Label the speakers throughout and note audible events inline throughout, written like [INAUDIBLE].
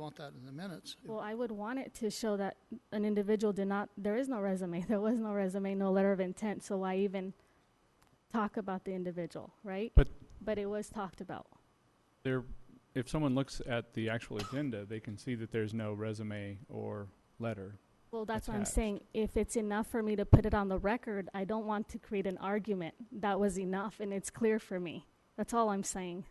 Speaker 1: want that in the minutes.
Speaker 2: Well, I would want it to show that an individual did not, there is no resume, [LAUGHS] there was no resume, no letter of intent, so why even talk about the individual, right?
Speaker 3: But-
Speaker 2: But it was talked about.
Speaker 3: There, if someone looks at the actual agenda, they can see that there's no resume or letter.
Speaker 2: Well, that's what I'm
Speaker 3: Attached.
Speaker 2: saying, if it's enough for me to put it on the record, I don't want to create an argument. That was enough, and it's clear for me. That's all I'm saying.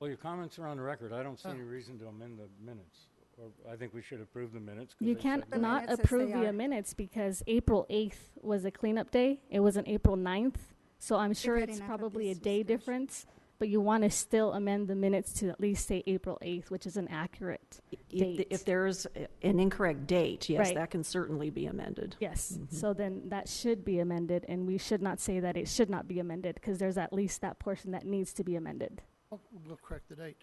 Speaker 4: Well, your comments are on the record. I don't see
Speaker 1: Oh.
Speaker 4: any reason to amend the minutes. Or I think we should approve the minutes. 'cause
Speaker 2: You
Speaker 4: they
Speaker 2: can't
Speaker 4: said-
Speaker 2: not
Speaker 5: minutes as
Speaker 2: approve
Speaker 5: they
Speaker 2: the
Speaker 5: are.
Speaker 2: minutes because April 8th was a cleanup day. It wasn't April 9th. So I'm sure
Speaker 5: had
Speaker 2: it's
Speaker 5: enough of
Speaker 2: probably a
Speaker 5: this
Speaker 2: day
Speaker 5: discussion.
Speaker 2: difference, but you want to still amend the minutes to at least say April 8th, which is inaccurate.
Speaker 6: If
Speaker 2: Date.
Speaker 6: the- If there's a- an incorrect date, yes,
Speaker 2: Right.
Speaker 6: that can certainly be amended.
Speaker 2: Yes. So then that should be amended, and we should not say that it should not be amended because there's at least that portion that needs to be amended.
Speaker 1: We'll we'll correct the date.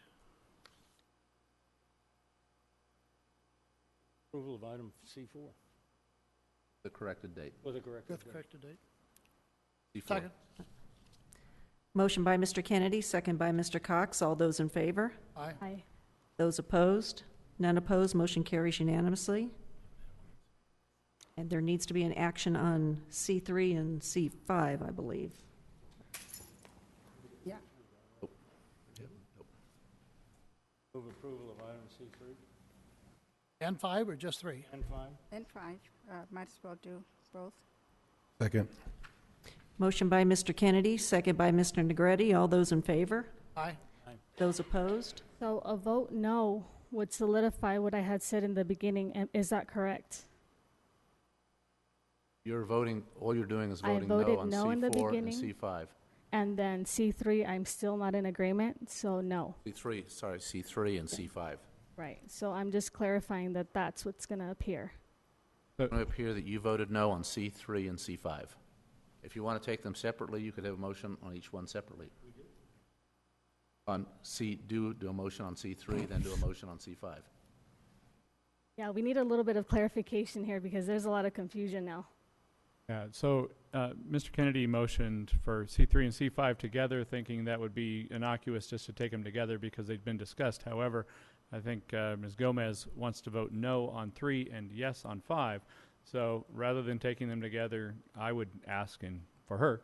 Speaker 4: Approval of item C4
Speaker 7: The corrected date.
Speaker 4: with a corrected
Speaker 1: With
Speaker 4: date.
Speaker 1: corrected date.
Speaker 7: before.
Speaker 1: Second.
Speaker 6: Motion by Mr. Kennedy, second by Mr. Cox. All those in favor?
Speaker 1: Aye.
Speaker 2: Aye.
Speaker 6: Those opposed? None opposed, motion carries unanimously. And there needs to be an action on C3 and C5, I believe.
Speaker 5: Yeah.
Speaker 4: Move approval of item C3
Speaker 1: And five or just three?
Speaker 4: and 5.
Speaker 5: And five, uh, might as well do both.
Speaker 8: Second.
Speaker 6: Motion by Mr. Kennedy, second by Mr. Negretti. All those in favor?
Speaker 1: Aye.
Speaker 6: Those opposed?
Speaker 2: So a vote no would solidify what I had said in the beginning. am- Is that correct?
Speaker 7: You're voting, all you're doing is
Speaker 2: I
Speaker 7: voting
Speaker 2: voted
Speaker 7: no on
Speaker 2: no in the
Speaker 7: C4 and
Speaker 2: beginning.
Speaker 7: C5.
Speaker 2: And then C3, I'm still not in agreement, so no.
Speaker 7: C3, sorry, C3 and C5.
Speaker 2: Right. So I'm just clarifying that that's what's going to appear.
Speaker 7: It's going to appear that you voted no on C3 and C5. If you want to take them separately, you could have a motion on each one separately. On C, do, do a motion on C3, then do a motion on C5.
Speaker 2: Yeah, we need a little bit of clarification here because there's a lot of confusion now.
Speaker 3: Yeah, so, uh, Mr. Kennedy motioned for C three and C five together, thinking that would be innocuous just to take them together because they'd been discussed. However, I think, uh, Ms. Gomez wants to vote no on three and yes on five. So rather than taking them together, I would ask and for her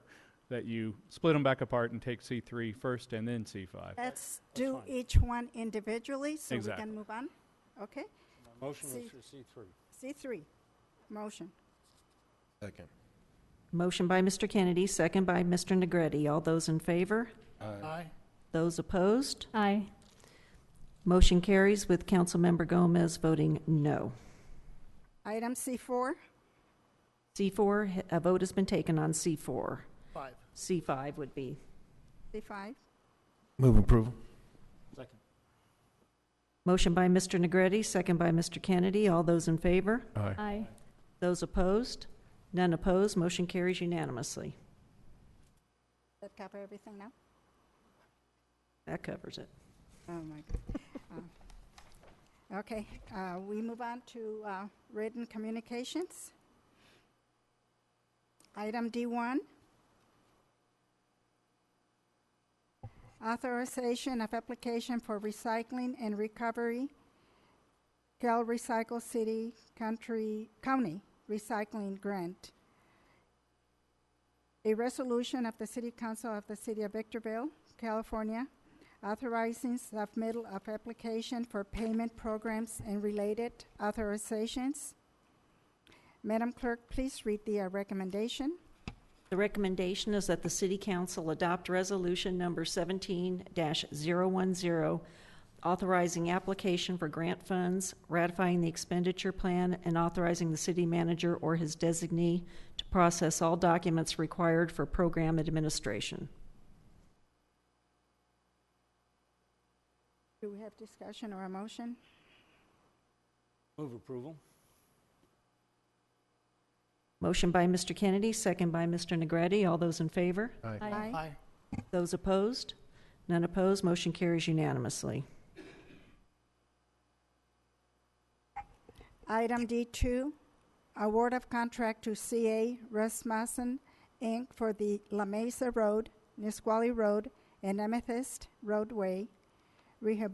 Speaker 3: that you split them back apart and take C three first and then C five.
Speaker 5: Let's do each one individually, so we
Speaker 3: Exactly.
Speaker 5: can move on. Okay?
Speaker 4: Motion
Speaker 5: C-
Speaker 4: is for C3.
Speaker 5: C three, motion.
Speaker 8: Second.
Speaker 6: Motion by Mr. Kennedy, second by Mr. Negretti. All those in favor?
Speaker 1: Aye.
Speaker 6: Those opposed?
Speaker 2: Aye.
Speaker 6: Motion carries with Councilmember Gomez voting no.
Speaker 5: Item C four,
Speaker 6: C4, a vote has been taken on C4.
Speaker 1: Five.
Speaker 6: C5 would be
Speaker 5: C five,
Speaker 8: Move approval.
Speaker 4: Second.
Speaker 6: Motion by Mr. Negretti, second by Mr. Kennedy. All those in favor?
Speaker 8: Aye.
Speaker 2: Aye.
Speaker 6: Those opposed? None opposed. Motion carries unanimously.
Speaker 5: that cover everything now?
Speaker 6: That covers it.
Speaker 5: Oh, my God. Uh, Okay, uh, we move on to uh, written communications. Item D1. Authorization of application for recycling and recovery. Cal Recycle City Country, County Recycling Grant. A resolution of the City Council of the City of Victorville, California, authorizing submittal of application for payment programs and related authorizations. Madam Clerk, please read the uh, recommendation.
Speaker 6: The recommendation is that the City Council adopt Resolution Number 17-010, authorizing application for grant funds, ratifying the expenditure plan, and authorizing the city manager or his designee to process all documents required for program administration.
Speaker 5: Do we have discussion or a motion?
Speaker 4: Move approval.
Speaker 6: Motion by Mr. Kennedy, second by Mr. Negretti. All those in favor?
Speaker 2: Aye.
Speaker 1: Aye.
Speaker 6: Those opposed? None opposed. Motion carries unanimously.
Speaker 5: Item D2, award of contract to CA Rasmussen, Inc. for the La Mesa Road, Nisqually Road, and Amethyst roadway rehabilitation